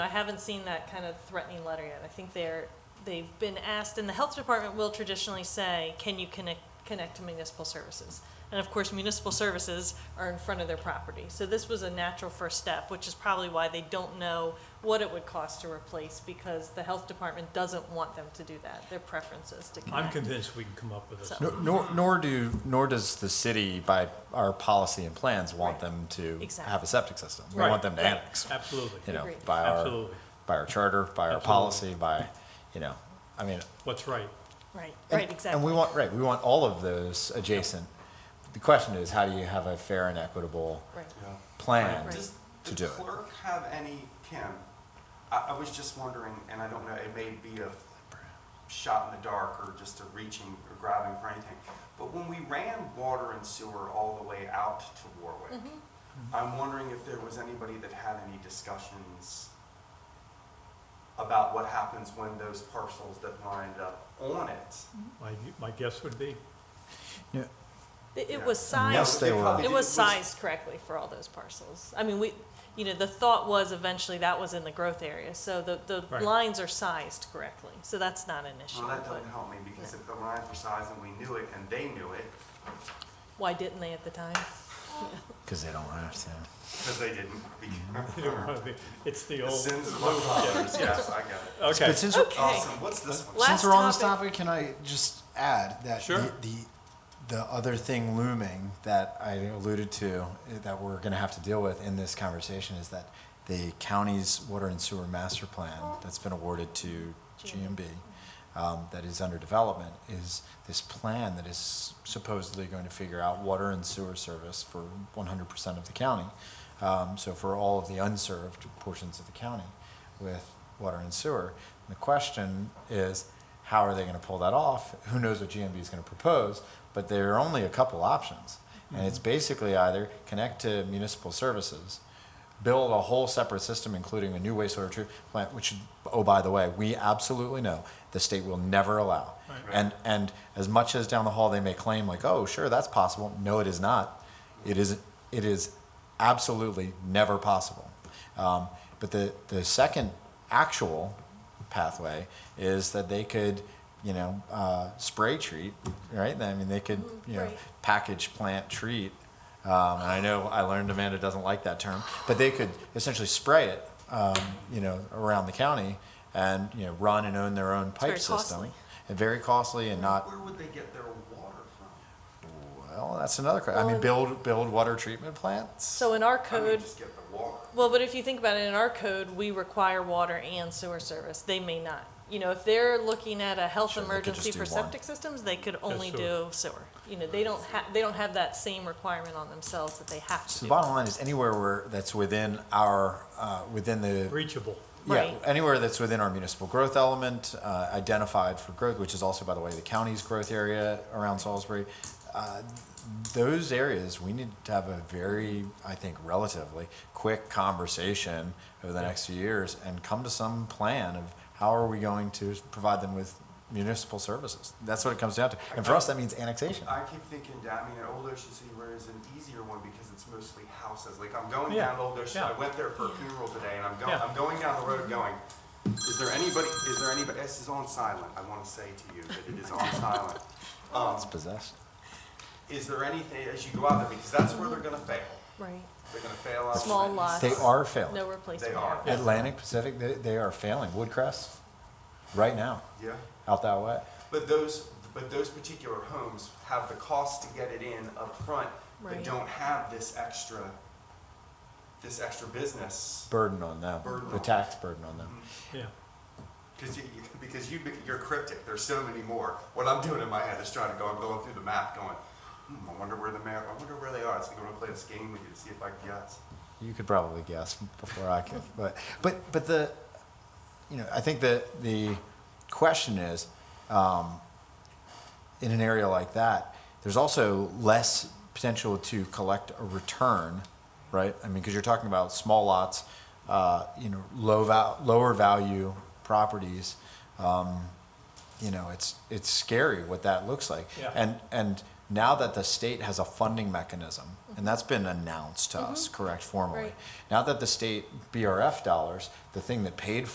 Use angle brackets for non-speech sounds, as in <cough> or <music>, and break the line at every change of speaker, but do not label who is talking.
I haven't seen that kind of threatening letter yet. I think they're, they've been asked, and the health department will traditionally say, can you connect, connect to municipal services? And of course, municipal services are in front of their property. So this was a natural first step, which is probably why they don't know what it would cost to replace, because the health department doesn't want them to do that. Their preference is to
I'm
connect.
convinced we can come up with a
So-
solution.
Nor- Nor, nor do, nor does the city by our policy and plans want
Right.
them to
Exactly.
have a septic system. We
Right,
want them to
right,
annex,
Absolutely.
you know,
Agreed.
by our,
Absolutely.
by our charter, by our
Absolutely.
policy, by, you know, I mean.
What's right?
Right,
and-
right,
And we
exactly.
want, right, we want all of those adjacent. The question is, how do you have a fair and equitable
Right.
plan
Right.
to
Does
do
the
it?
clerk have any, Kim, I, I was just wondering, and I don't know, it may be a shot in the dark or just a reaching or grabbing for anything, but when we ran water and sewer all the way out to Warwick,
Mm-hmm.
I'm wondering if there was anybody that had any discussions about what happens when those parcels that lined up on it.
My, my guess would be, <laughs>
It it
Yeah.
was sized.
Yes, they were.
probably
It
did-
was sized correctly for all those parcels. I mean, we, you know, the thought was eventually that was in the growth area, so the, the
Right.
lines are sized correctly, so that's not an issue.
Well, that
but
doesn't help me, because if the lines were sized and we knew it and they knew it,
Why didn't they at the time?
Because they don't have to.
because they <laughs> didn't,
you don't wanna be- it's the
The
old.
sins of our fathers, yes, I got it.
Okay,
But since, we're-
Okay,
Awesome, what's this one?
Last
since we're on this
topic.
topic, can I just add that
Sure.
the, the the other thing looming that I alluded to eh, that we're going to have to deal with in this conversation is that the county's water and sewer master plan that's been awarded to GMB um, that is under development is this plan that is supposedly going to figure out water and sewer service for 100% of the county. Um, so for all of the unserved portions of the county with water and sewer. The question is, how are they going to pull that off? Who knows what GMB is going to propose? But there are only a couple options. And it's basically either connect to municipal services, build a whole separate system, including a new wastewater treatment plant, which, oh, by the way, we absolutely know the state will never allow. And, and as much as down the hall they may claim like, oh, sure, that's possible. No, it is not. It is, it is absolutely never possible. Um, but the, the second actual pathway is that they could, you know, uh, spray treat, right? I mean, they could, you know,
Mm, right.
package plant treat. Um, and I know I learned Amanda doesn't like that term, but they could essentially spray it, um, you know, around the county and, you know, run and own their own
very
pipe system.
costly.
And very costly and not,
Where would they get their water from?
well, that's another question. I mean, build, build water treatment plants.
So in our
I mean,
code,
just get the water.
well, but if you think about it, in our code, we require water and sewer service, they may not. You know, if they're looking at a health
Sure, they could just
emergency
do
for
one.
septic systems, they could only
sewer.
do sewer. You know, they don't have, they don't have that same requirement on themselves that they have to
So
do.
the bottom line is anywhere where, that's within our, uh, within the
reachable.
Yeah,
Right.
anywhere that's within our municipal growth element, uh, identified for growth, which is also, by the way, the county's growth area around Salisbury. uh, Those areas, we need to have a very, I think, relatively quick conversation over the next few years and come to some plan of how are we going to provide them with municipal services? That's what it comes down to. And for us, that means annexation.
I keep thinking, down- I mean, an Old Ocean City Road is an easier one because it's mostly houses. Like, I'm going
Yeah,
down Old Ocean,
yeah.
I went there for a funeral today, and I'm going,
Yeah.
I'm going down the road going, is there anybody, is there anybody, this is on silent, I want to say to you that it is
<laughs>
on silent. Um,
It's possessed.
is there anything, as you go out there, because that's where they're gonna fail.
Right.
They're gonna fail out. on
Small
the east
lots.
They
side.
are failing.
No replacement.
They are.
Yeah.
Atlantic, Pacific, they, they are failing. Woodcrest, right now,
Yeah.
out that way.
But those, but those particular homes have the cost to get it in up front,
Right.
but don't have this extra, this extra business.
burden on them,
Burden
the
on
tax burden on them.
Yeah,
Because you, you- because you, you're cryptic, there's so many more. What I'm doing in my head is trying to go, I'm going through the map going, hmm, I wonder where the mayor, I wonder where they are. It's like I'm gonna play this game with you to see if I can guess.
You could probably guess before I could, but but but the, you know, I think the the question is, um, in an area like that, there's also less potential to collect a return, right? I mean, because you're talking about small lots, uh, you know, low val- lower value properties. Um, you know, it's it's scary what that looks like.
Yeah.
And and Now that the state has a funding mechanism, and that's been announced to us, correct, formally.
Right.
Now that the state BRF dollars, the thing that paid